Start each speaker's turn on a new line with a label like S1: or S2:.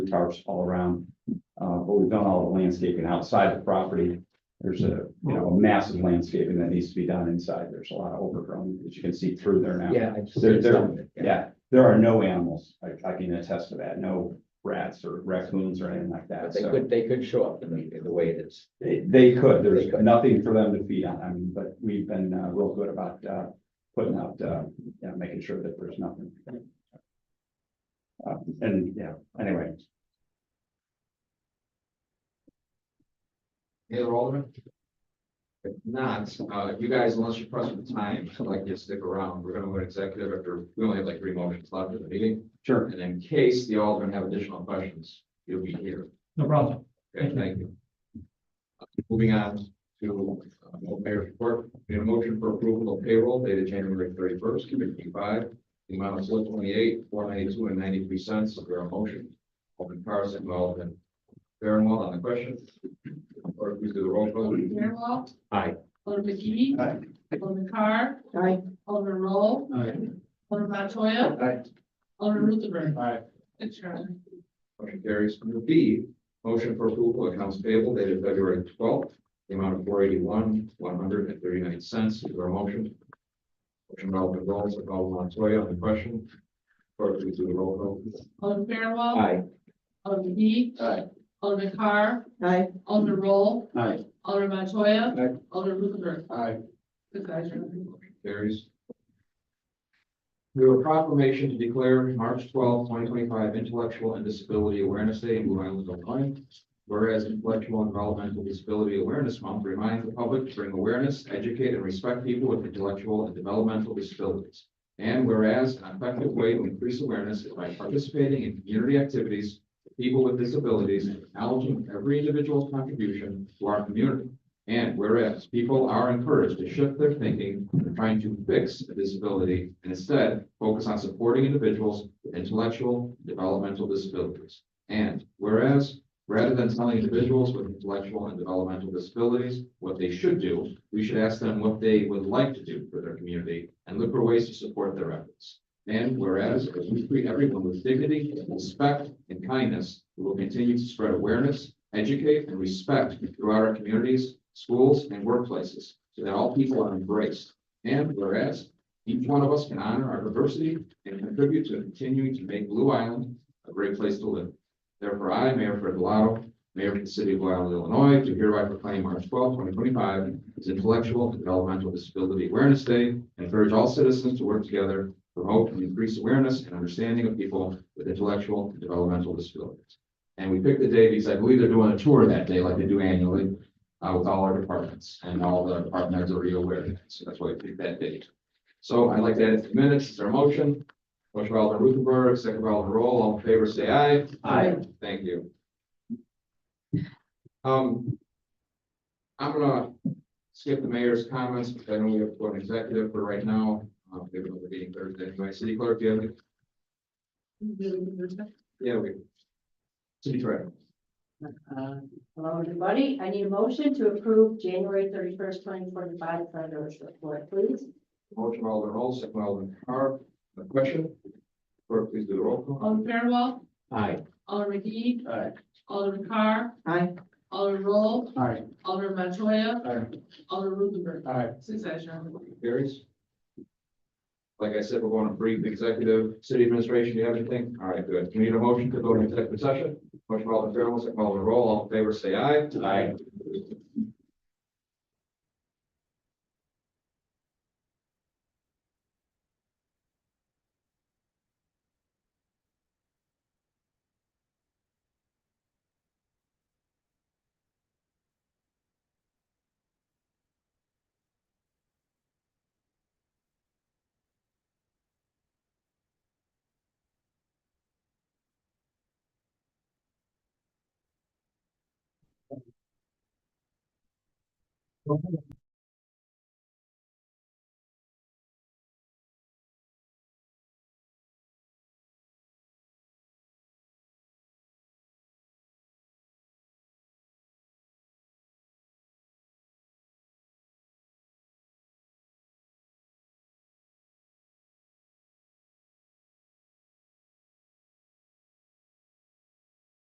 S1: tarps all around. Uh, but we've done all the landscaping outside the property. There's a, you know, a massive landscaping that needs to be done inside. There's a lot of overgrown, as you can see through there now.
S2: Yeah. I've
S1: There-
S2: seen
S1: there-
S2: some of it,
S1: Yeah, there are no animals. I, I can attest to that. No rats or raccoons or anything like that.
S2: But they
S1: So
S2: could, they could show up in the, in the way it is.
S1: they- they could. There's
S2: They could.
S1: nothing for them to feed on. I mean, but we've been, uh, real good about, uh, putting out, uh, you know, making sure that there's nothing. Uh, and, yeah, anyway,
S3: Hey, Alderman? If not, uh, you guys, unless you're pressed for time, I'd like you to stick around. We're gonna go to executive after, we only have like three motions left in the meeting.
S1: sure.
S3: And in case the Alderman have additional questions, you'll be here.
S4: No problem.
S3: Okay, thank you. Moving on to uh, mayor's report, we have a motion for approval of payroll dated January thirty first, committee five. The amount of four twenty eight, four ninety two and ninety three cents. Is there a motion? Alderman Carson, Alderman Fairwell on the question. Or please do the roll call.
S5: Alderman Fairwell.
S3: Aye.
S5: Alderman McGee.
S1: Aye.
S5: Alderman Carr.
S2: Aye.
S5: Alderman Roll.
S4: Aye.
S5: Alderman Montoya.
S3: Aye.
S5: Alderman Ruthenberg.
S4: Aye.
S5: Thanks, Your Honor.
S3: Motion carries. Under B, motion for approval of accounts payable dated February twelfth, the amount of four eighty-one, one hundred and thirty-nine cents. Is there a motion? Motion by Alderman Rolls, by Alderman Montoya on the question. Clerk, please do the roll call.
S5: Alderman Fairwell.
S2: Aye.
S5: Alderman McGee.
S3: Aye.
S5: Alderman Carr.
S2: Aye.
S5: Alderman Roll.
S1: Aye.
S5: Alderman Montoya.
S3: Aye.
S5: Alderman Ruthenberg.
S3: Aye.
S5: Good guys, Your Honor.
S3: Carries. We have a proclamation to declare March twelfth, twenty twenty-five Intellectual and Disability Awareness Day in Blue Island, Illinois. Whereas Intellectual and Developmental Disability Awareness Month reminds the public to bring awareness, educate, and respect people with intellectual and developmental disabilities. And whereas an effective way to increase awareness is by participating in community activities, for people with disabilities, and acknowledging every individual's contribution to our community. And whereas people are encouraged to shift their thinking from trying to fix a disability and instead focus on supporting individuals with intellectual and developmental disabilities. And whereas, rather than telling individuals with intellectual and developmental disabilities what they should do, we should ask them what they would like to do for their community and look for ways to support their efforts. And whereas, as we treat everyone with dignity, respect, and kindness, we will continue to spread awareness, educate, and respect throughout our communities, schools, and workplaces, so that all people are embraced. And whereas, each one of us can honor our diversity and contribute to continuing to make Blue Island a great place to live. Therefore, I, Mayor Fred Blau, Mayor of the City of Blue Island, Illinois, do hereby proclaim March 12, 2025 as Intellectual and Developmental Disability Awareness Day, and encourage all citizens to work together promote and increase awareness and understanding of people with intellectual and developmental disabilities. And we picked the day because I believe they're doing a tour that day like they do annually uh, with all our departments and all the departments are already aware of that. So that's why we picked that date. So I'd like to add it to the minutes. Is there a motion? Motion by Alderman Ruthenberg, second by Alderman Roll. All in favor, say aye.
S1: Aye.
S3: Thank you. Um, I'm gonna skip the mayor's comments, because I know we have one executive for right now. Uh, we have another meeting Thursday anyway. City clerk, do you have any? Yeah, we. City treasurer.
S6: Uh, Hello, everybody. I need a motion to approve January thirty-first, twenty twenty-five, treasurer's report, please.
S3: Motion by Alderman Roll, second by Alderman Carr. A question? Clerk, please do the roll call.
S5: Alderman Fairwell.
S2: Aye.
S5: Alderman McGee.
S4: Aye.
S5: Alderman Carr.
S2: Aye.
S5: Alderman Roll.
S4: Aye.
S5: Alderman Montoya.
S4: Aye.
S5: Alderman Ruthenberg.
S4: Aye.
S5: Six eyes, Your Honor.
S3: Carries. Like I said, we're going to brief executive, city administration, do you have anything? All right, good. We need a motion to go to executive session. Motion by Alderman Fairwell, second by Alderman Roll. All in favor, say aye.
S1: Aye.